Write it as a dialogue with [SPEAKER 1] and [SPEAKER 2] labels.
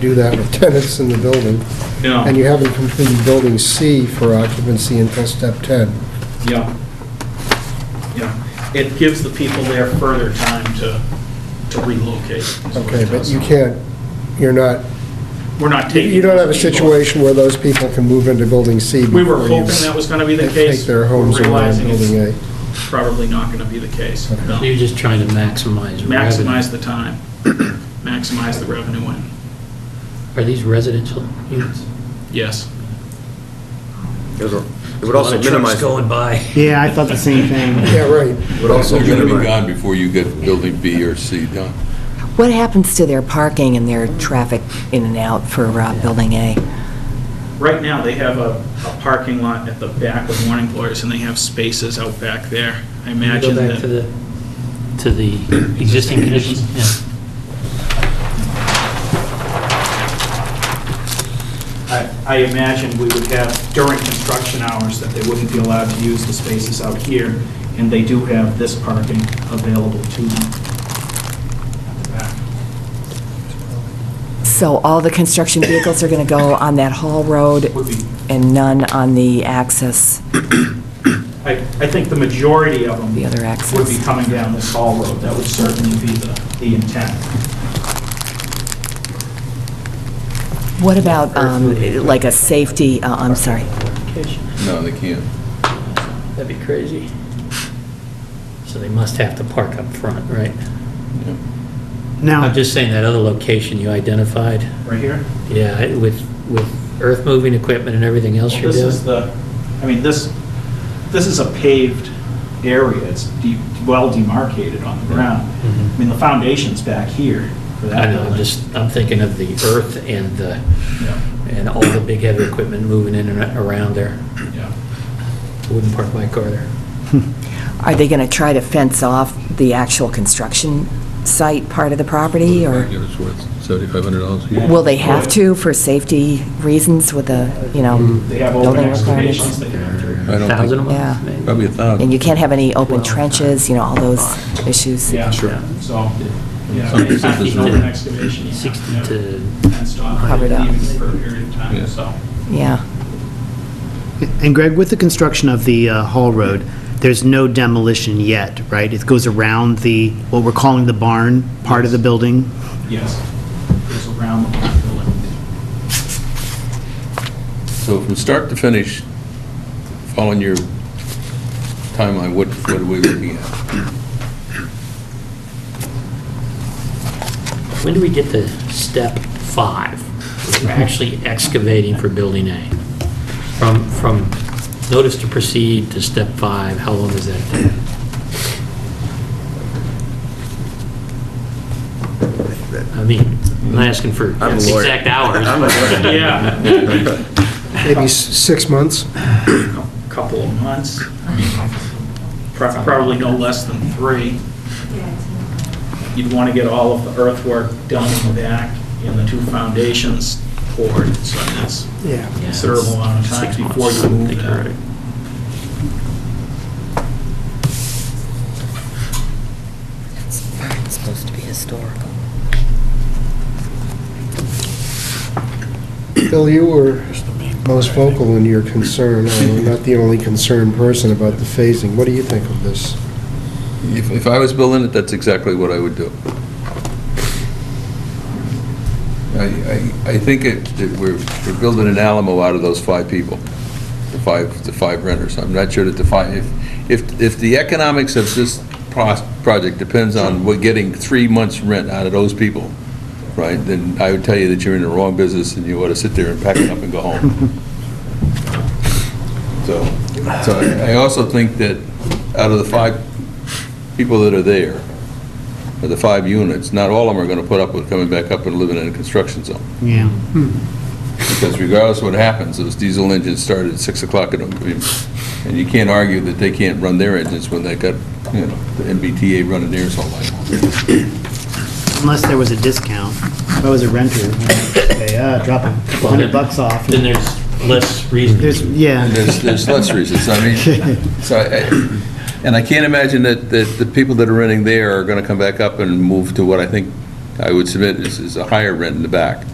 [SPEAKER 1] do that with tenants in the building.
[SPEAKER 2] No.
[SPEAKER 1] And you haven't completed building C for occupancy until step 10.
[SPEAKER 2] Yeah. Yeah. It gives the people there further time to, to relocate. is what it
[SPEAKER 1] Okay, but
[SPEAKER 2] does.
[SPEAKER 1] you can't, you're not,
[SPEAKER 2] We're not taking.
[SPEAKER 1] you don't have a
[SPEAKER 2] those people.
[SPEAKER 1] situation where those people can move into building C before
[SPEAKER 2] We
[SPEAKER 1] you...
[SPEAKER 2] were hoping that was gonna be the case.
[SPEAKER 1] Take their homes
[SPEAKER 2] We're
[SPEAKER 1] around
[SPEAKER 2] realizing it's
[SPEAKER 1] building A.
[SPEAKER 2] Probably not gonna be the case.
[SPEAKER 1] Okay.
[SPEAKER 2] No.
[SPEAKER 3] You're just trying to maximize revenue.
[SPEAKER 2] Maximize the time, maximize the revenue in.
[SPEAKER 3] Are these residential units?
[SPEAKER 2] Yes.
[SPEAKER 4] There's a- It would also minimize,
[SPEAKER 3] A lot of trucks going by.
[SPEAKER 5] Yeah, I thought the same thing.
[SPEAKER 1] Yeah, right.
[SPEAKER 4] it would also
[SPEAKER 6] They're going to be
[SPEAKER 4] minimize,
[SPEAKER 6] gone before you get building B or C done.
[SPEAKER 7] What happens to their parking and their traffic in and out for uh, Building A?
[SPEAKER 2] Right now, they have a, a parking lot at the back of Morning Glories, and they have spaces out back there. I imagine
[SPEAKER 3] Go back to
[SPEAKER 2] that,
[SPEAKER 3] the, to the existing conditions, yeah.
[SPEAKER 2] I, I imagine we would have during construction hours that they wouldn't be allowed to use the spaces out here, and they do have this parking available to them at the back.
[SPEAKER 7] So all the construction vehicles are going to go on that Hall Road
[SPEAKER 2] Would be,
[SPEAKER 7] and none on the access,
[SPEAKER 2] I, I think the majority of them
[SPEAKER 7] the other
[SPEAKER 2] would be
[SPEAKER 7] access?
[SPEAKER 2] coming down this hall road. That would certainly be the, the intent.
[SPEAKER 7] What about, um, like a safety, uh, I'm sorry,
[SPEAKER 6] No, they can't.
[SPEAKER 3] That'd be crazy. So they must have to park up front, right? I'm
[SPEAKER 5] Now,
[SPEAKER 3] just saying that other location you identified,
[SPEAKER 2] Right here?
[SPEAKER 3] yeah, I- with, with earth-moving equipment and everything else
[SPEAKER 2] Well,
[SPEAKER 3] you're
[SPEAKER 2] This is
[SPEAKER 3] doing.
[SPEAKER 2] the, I mean, this, this is a paved area, it's de- well demarcated on the ground. I mean, the foundation's back here for that
[SPEAKER 3] Mm-hmm. I know,
[SPEAKER 2] building.
[SPEAKER 3] I'm just, I'm thinking of the earth and the,
[SPEAKER 2] Yeah,
[SPEAKER 3] and all the big heavy equipment moving in and around there.
[SPEAKER 2] yeah.
[SPEAKER 3] Wouldn't park my car there.
[SPEAKER 7] are they going to try to fence off the actual construction site part of the property? Or
[SPEAKER 6] It's worth $7,500 a year.
[SPEAKER 7] will they have to for safety reasons with the, you know?
[SPEAKER 2] They have
[SPEAKER 7] Building
[SPEAKER 2] open
[SPEAKER 7] requirements.
[SPEAKER 2] excavations, they have their,
[SPEAKER 6] I don't think- Um,
[SPEAKER 3] Thousand a
[SPEAKER 7] Yeah.
[SPEAKER 3] month, maybe?
[SPEAKER 6] Probably a thousand.
[SPEAKER 7] And you can't have any open trenches, you know, all those issues?
[SPEAKER 2] yeah, so, yeah,
[SPEAKER 6] Some businesses
[SPEAKER 2] packing
[SPEAKER 6] don't.
[SPEAKER 2] open excavation, you have
[SPEAKER 3] 60
[SPEAKER 2] to
[SPEAKER 3] to,
[SPEAKER 2] fenced off,
[SPEAKER 7] Covered up.
[SPEAKER 2] leaving for a period of
[SPEAKER 6] Yeah.
[SPEAKER 2] time, so.
[SPEAKER 7] Yeah.
[SPEAKER 5] and Greg, with the construction of the uh, Hall Road, there's no demolition yet, right? It goes around the, what we're calling the barn part of the building?
[SPEAKER 2] Yes, it's around the block building.
[SPEAKER 6] So from start to finish, following your timeline, what, what are we looking at?
[SPEAKER 3] when do we get to step five? We're actually excavating for building A. From, from notice to proceed to step five, how long does that take? I mean, I'm not asking for
[SPEAKER 4] I'm a lawyer.
[SPEAKER 3] exact hours.
[SPEAKER 4] I'm a
[SPEAKER 3] but-
[SPEAKER 4] lawyer.
[SPEAKER 2] Yeah,
[SPEAKER 1] Maybe s- six months?
[SPEAKER 2] couple of months, Pro- probably no less than three. You'd want to get all of the earthwork done in the back and the two foundations poured, so that's
[SPEAKER 1] Yeah.
[SPEAKER 3] Yeah,
[SPEAKER 2] considerable amount of
[SPEAKER 3] six
[SPEAKER 2] time
[SPEAKER 3] months,
[SPEAKER 2] before
[SPEAKER 3] I
[SPEAKER 2] you move
[SPEAKER 3] think you're
[SPEAKER 2] that.
[SPEAKER 3] right.
[SPEAKER 7] It's supposed to be historical.
[SPEAKER 1] Bill, you were most vocal in your concern, I'm not the only concerned person about the phasing. What do you think of this?
[SPEAKER 6] If, if I was building it, that's exactly what I would do. I, I, I think it, that we're, we're building an Alamo out of those five people, the five, the five renters. I'm not sure that the five, if, if, if the economics of this pros- project depends on what getting three months' rent out of those people, right, then I would tell you that you're in the wrong business and you ought to sit there and pack it up and go home. So, so I I also think that out of the five people that are there, or the five units, not all of them are going to put up with coming back up and living in a construction zone.
[SPEAKER 5] Yeah.
[SPEAKER 6] Because regardless of what happens, those diesel engines start at 6 o'clock, in the- and you can't argue that they can't run their engines when they got, you know, the MBTA running theirs all night long.
[SPEAKER 5] Unless there was a discount. If I was a renter, okay, uh, drop a
[SPEAKER 3] Well, then-
[SPEAKER 5] hundred bucks off.
[SPEAKER 3] Then there's less reason. to
[SPEAKER 5] There's, yeah.
[SPEAKER 6] And There's, there's less reasons, I mean, so, I- and I can't imagine that, that the people that are renting there are going to come back up and move to what I think I would submit is, is a higher rent in the back.